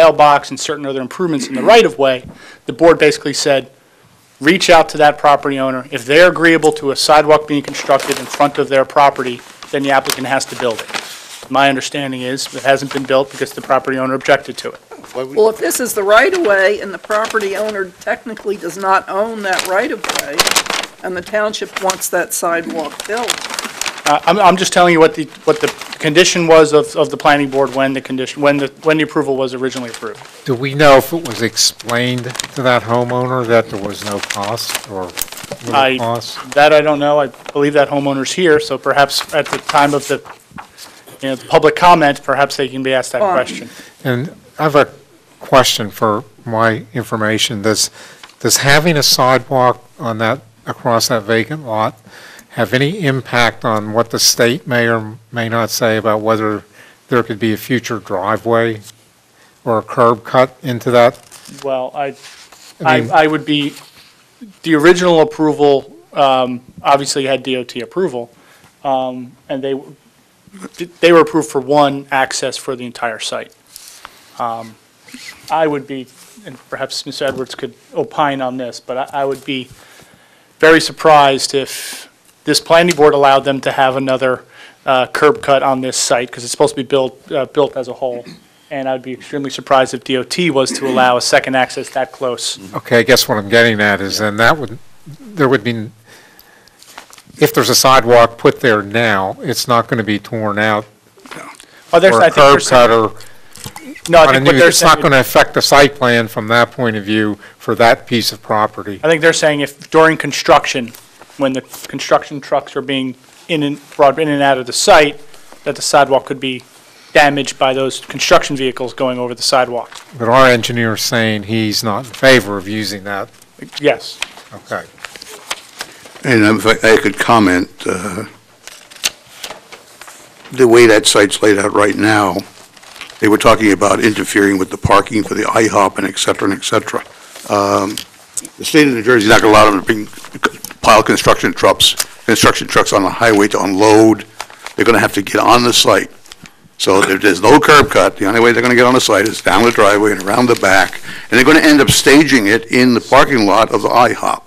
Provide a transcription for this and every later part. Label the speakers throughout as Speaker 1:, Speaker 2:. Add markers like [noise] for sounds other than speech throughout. Speaker 1: mailbox and certain other improvements in the right-of-way, the board basically said, reach out to that property owner. If they're agreeable to a sidewalk being constructed in front of their property, then the applicant has to build it. My understanding is, it hasn't been built because the property owner objected to it.
Speaker 2: Why would-
Speaker 3: Well, if this is the right-of-way and the property owner technically does not own that right-of-way, and the township wants that sidewalk built,
Speaker 1: Uh, I'm, I'm just telling you what the, what the condition was of, of the planning board when the condition, when the, when the approval was originally approved.
Speaker 4: Do we know if it was explained to that homeowner that there was no cost or
Speaker 1: I-
Speaker 4: little cost?
Speaker 1: That I don't know. I believe that homeowner's here, so perhaps at the time of the, you know, the public comment, perhaps they can be asked that
Speaker 3: Um,
Speaker 1: question.
Speaker 4: And I have a question for my information. Does, does having a sidewalk on that, across that vacant lot have any impact on what the state may or may not say about whether there could be a future driveway or a curb cut into that?
Speaker 1: Well, I,
Speaker 4: I
Speaker 1: I,
Speaker 4: mean-
Speaker 1: I would be, the original approval, um, obviously had DOT approval, um, and they, they were approved for one access for the entire site. Um, I would be, and perhaps Ms. Edwards could opine on this, but I, I would be very surprised if this planning board allowed them to have another, uh, curb cut on this site, because it's supposed to be built, uh, built as a whole. And I'd be extremely surprised if DOT was to allow a second access that close.
Speaker 4: Okay, I guess what I'm getting at is then that would, there would be, if there's a sidewalk put there now, it's not going to be torn out
Speaker 1: Oh, there's,
Speaker 4: or
Speaker 1: I
Speaker 4: a
Speaker 1: think they're
Speaker 4: curb
Speaker 1: saying.
Speaker 4: cut or,
Speaker 1: No, I
Speaker 4: on a
Speaker 1: think
Speaker 4: new-
Speaker 1: what they're
Speaker 4: it's not
Speaker 1: saying,
Speaker 4: going to affect the site plan from that point of view for that piece of property.
Speaker 1: I think they're saying if during construction, when the construction trucks are being in and, brought in and out of the site, that the sidewalk could be damaged by those construction vehicles going over the sidewalk.
Speaker 4: But our engineer's saying he's not in favor of using that.
Speaker 1: Yes.
Speaker 4: Okay.
Speaker 2: And if I I could comment, uh, the way that site's laid out right now, they were talking about interfering with the parking for the IHOP and et cetera and et cetera. Um, The state of New Jersey is not going to allow them to bring, pile construction trucks, construction trucks on the highway to unload. They're going to have to get on the site. So if there's no curb cut, the only way they're going to get on the site is down the driveway and around the back, and they're going to end up staging it in the parking lot of the IHOP.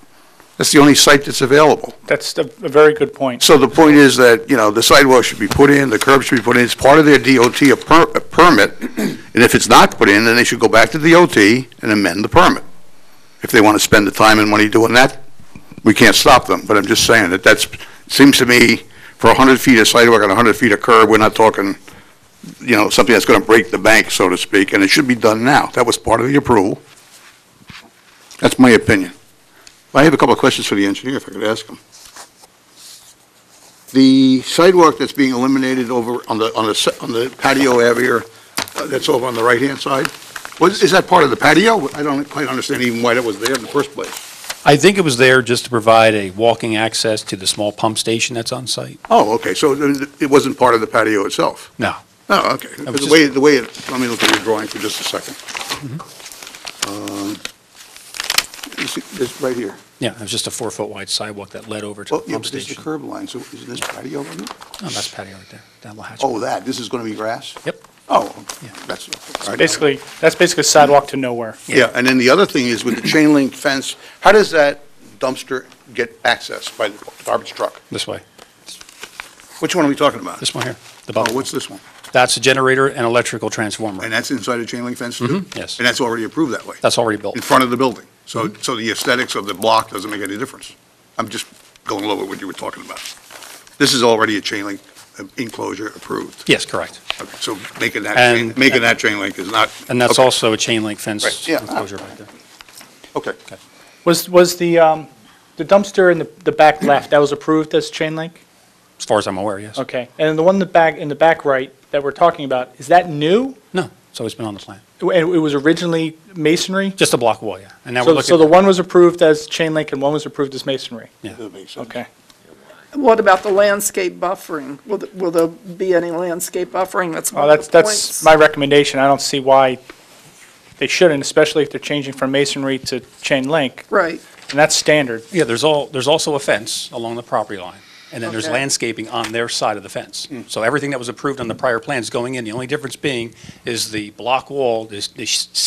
Speaker 2: That's the only site that's available.
Speaker 1: That's a a very good point.
Speaker 2: So the point is that, you know, the sidewalk should be put in, the curb should be put in, it's part of their DOT a per- a permit, and if it's not put in, then they should go back to DOT and amend the permit. If they want to spend the time and money doing that, we can't stop them, but I'm just saying that that's, seems to me, for 100 feet of sidewalk and 100 feet of curb, we're not talking, you know, something that's going to break the bank, so to speak, and it should be done now. That was part of the approval. That's my opinion. I have a couple of questions for the engineer, if I could ask him. The sidewalk that's being eliminated over on the, on the, se- on the patio area, uh, that's over on the right-hand side, was, is that part of the patio? I don't quite understand even why that was there in the first place.
Speaker 5: I think it was there just to provide a walking access to the small pump station that's on site.
Speaker 2: Oh, okay, so then it wasn't part of the patio itself?
Speaker 5: No.
Speaker 2: Oh, okay.
Speaker 5: was
Speaker 2: The
Speaker 5: just-
Speaker 2: way, the way, it- let me look at your drawing for just a second.
Speaker 5: Mm-hmm.
Speaker 2: Um, Uh, you see, This right here.
Speaker 5: Yeah, it was just a four-foot wide sidewalk that led over to
Speaker 2: Well,
Speaker 5: the
Speaker 2: yeah,
Speaker 5: pump
Speaker 2: but this is the
Speaker 5: station.
Speaker 2: curb line, so isn't this patio on it?
Speaker 5: No, that's patio right there, down La Hatch.
Speaker 2: Oh, that, this is going to be grass?
Speaker 5: Yep.
Speaker 2: Oh,
Speaker 5: Yeah.
Speaker 2: that's. all right.
Speaker 1: Basically, that's basically sidewalk to nowhere.
Speaker 2: Yeah, and then the other thing is with the chain link fence, how does that dumpster get access by the garbage truck?
Speaker 5: This way,
Speaker 2: Which one are we talking about?
Speaker 5: this one here, the
Speaker 2: Oh,
Speaker 5: bottom.
Speaker 2: what's this one?
Speaker 5: That's a generator and electrical transformer.
Speaker 2: And that's inside a chain link fence too?
Speaker 5: Mhm, yes.
Speaker 2: And that's already approved that way,
Speaker 5: That's Mm-hmm. already
Speaker 2: [laughs]
Speaker 5: built.
Speaker 2: in front of the building? So, so the aesthetics of the block doesn't make any difference? I'm just going over what you were talking about. This is already a chain link uh, enclosure approved.
Speaker 5: Yes, correct.
Speaker 2: Okay, So making that, chain-
Speaker 5: And-
Speaker 2: making that chain link is not.
Speaker 5: And that's
Speaker 2: okay,
Speaker 5: also a chain link
Speaker 2: Right,
Speaker 5: fence
Speaker 2: yeah.
Speaker 5: enclosure right there.
Speaker 2: Okay.
Speaker 1: Was, was the, um, the dumpster in the, the back left, that was approved as chain link?
Speaker 5: As far as I'm aware, yes.
Speaker 1: Okay. And then the one in the back, in the back right that we're talking about, is that new?
Speaker 5: No, it's always been on the plan.
Speaker 1: It it was originally masonry?
Speaker 5: Just a block wall, yeah. And now we're
Speaker 1: So, so the
Speaker 5: looking,
Speaker 1: one was approved as chain link and one was approved as masonry?
Speaker 2: That makes sense.
Speaker 1: Okay.
Speaker 3: what about the landscape buffering? Will, th- will there be any landscape buffering? That's
Speaker 1: Well,
Speaker 3: one of
Speaker 1: Oh, that's,
Speaker 3: the
Speaker 1: that's
Speaker 3: points.
Speaker 1: my recommendation. I don't see why they shouldn't, especially if they're changing from masonry to chain link.
Speaker 3: Right,
Speaker 1: And that's standard.
Speaker 5: yeah, there's all, there's also a fence along the property line. And then there's
Speaker 3: Okay.
Speaker 5: landscaping on their side of the fence. So everything that was approved on the prior plans going in. The only difference being is the block wall, this, this